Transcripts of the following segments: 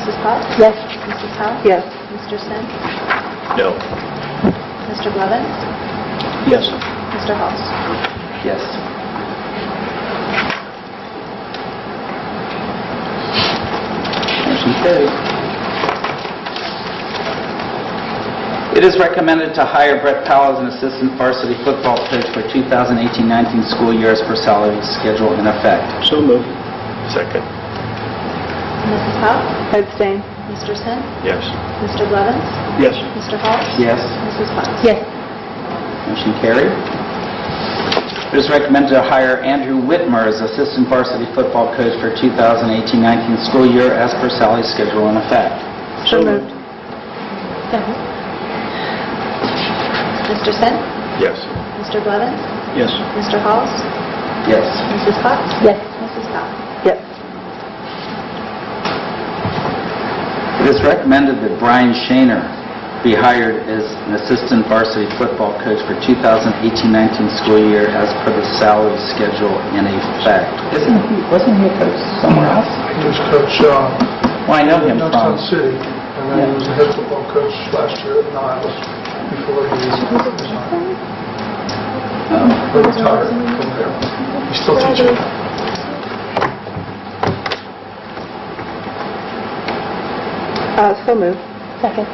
Mrs. Potts? Yes. Mrs. Powell? Yes. Mr. Sin? No. Mr. Blevins? Yes. Mr. Halls? Yes. Motion carried. It is recommended to hire Brett Powell as an assistant varsity football coach for 2018-19 school year as per salary schedule in effect. So moved. Second. Mrs. Powell? Abstain. Mr. Sin? Yes. Mr. Blevins? Yes. Mr. Halls? Yes. Mrs. Potts? Yes. Motion carried. It is recommended to hire Andrew Whitmer as assistant varsity football coach for 2018-19 school year as per salary schedule in effect. So moved. Mr. Sin? Yes. Mr. Blevins? Yes. Mr. Halls? Yes. Mrs. Potts? Yes. Mrs. Powell? Yes. It is recommended that Brian Shaner be hired as an assistant varsity football coach for 2018-19 school year as per the salary schedule in effect. Isn't he, wasn't he a coach somewhere else? He was coach, uh, Well, I know him Youngstown from, City, and then he was the head football coach last year at Niles before he resigned. oh, He retired from there. He's still teaching. Uh, So moved. Second.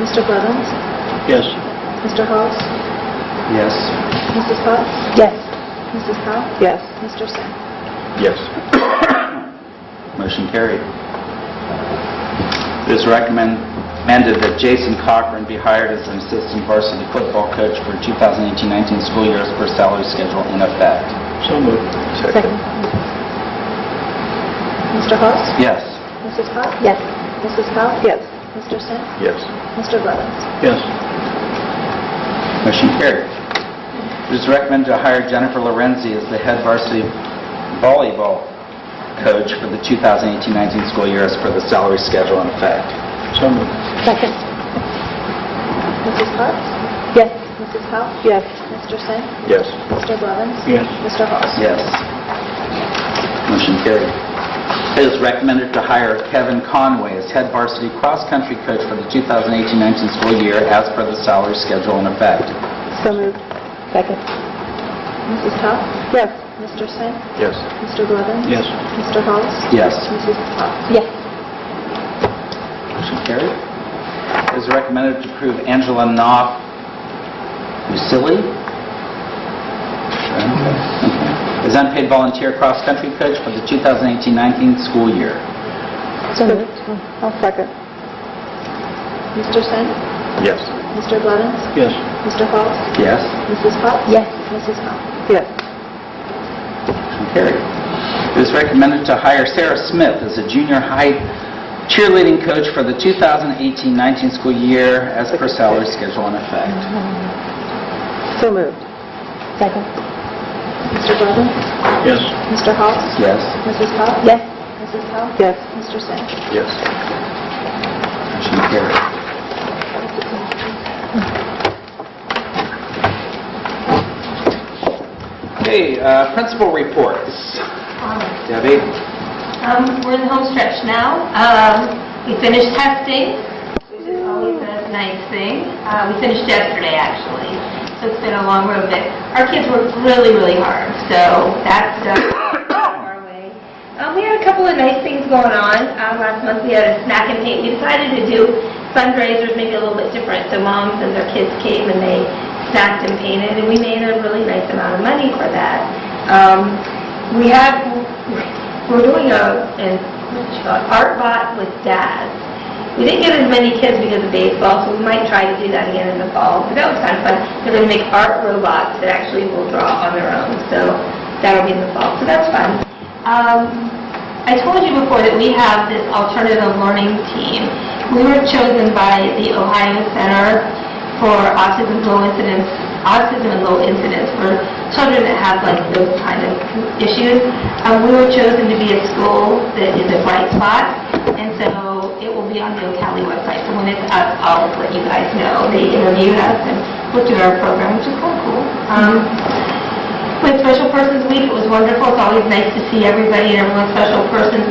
Mr. Blevins? Yes. Mr. Halls? yes. Mrs. Potts? Yes. Mrs. Powell? Yes. Mr. Sin? Yes. Motion carried. It is recommended that Jason Cochran be hired as an assistant varsity football coach for 2018-19 school year as per salary schedule in effect. So moved. Second. Mr. Halls? Yes. Mrs. Potts? Yes. Mrs. Powell? Yes. Mr. Sin? Yes. Mr. Blevins? Yes. Motion carried. It is recommended to hire Jennifer Lorenzi as the head varsity volleyball coach for the 2018-19 school year as per the salary schedule in effect. So moved. Second. Mrs. Potts? Yes. Mrs. Powell? Yes. Mr. Sin? Yes. Mr. Blevins? Yes. Mr. Halls? Yes. Motion carried. It is recommended to hire Kevin Conway as head varsity cross-country coach for the 2018-19 school year as per the salary schedule in effect. So moved. Second. Mrs. Powell? Yes. Mr. Sin? Yes. Mr. Blevins? Yes. Mr. Halls? Yes. Mrs. Potts? Yes. Motion carried. It is recommended to approve Angela Knopf Musili as unpaid volunteer cross-country coach for the 2018-19 school year. So moved. I'll second. Mr. Sin? Yes. Mr. Blevins? Yes. Mr. Halls? Yes. Mrs. Potts? Yes. Mrs. Powell? Yes. Motion carried. It is recommended to hire Sarah Smith as a junior high cheerleading coach for the 2018-19 school year as per salary schedule in effect. So moved. Second. Mr. Blevins? Yes. Mr. Halls? Yes. Mrs. Powell? Yes. Mrs. Powell? Yes. Mr. Sin? Yes. Motion carried. Okay, uh, principal reports. Debbie? Um, We're in the home stretch now. Um, We finished testing, which is always a nice thing. Uh, We finished yesterday, actually, so it's been a long road, but our kids worked really, really hard, so that's uh, our way. Um, We had a couple of nice things going on. Um, Last month, we had a snack and paint. We decided to do fundraisers maybe a little bit different, so moms and their kids came and they snacked and painted, and we made a really nice amount of money for that. Um, We have, we're doing a, an art bot with dads. We didn't get as many kids because of baseball, so we might try to do that again in the fall. But that was kind of fun. They're going to make art robots that actually will draw on their own, so that'll be in the fall. So that's fun. Um, I told you before that we have this alternative learning team. We were chosen by the Ohio Center for Autism Low Incidence, Autism and Low Incidence for children that have like those kind of issues. Um, we were chosen to be a school that is a bright spot, and so it will be on the Ocali website. So when it's up, I'll let you guys know. They interviewed us and looked at our program, which is kind of cool. Um, with Special Persons Week, it was wonderful. It's always nice to see everybody and everyone's special persons.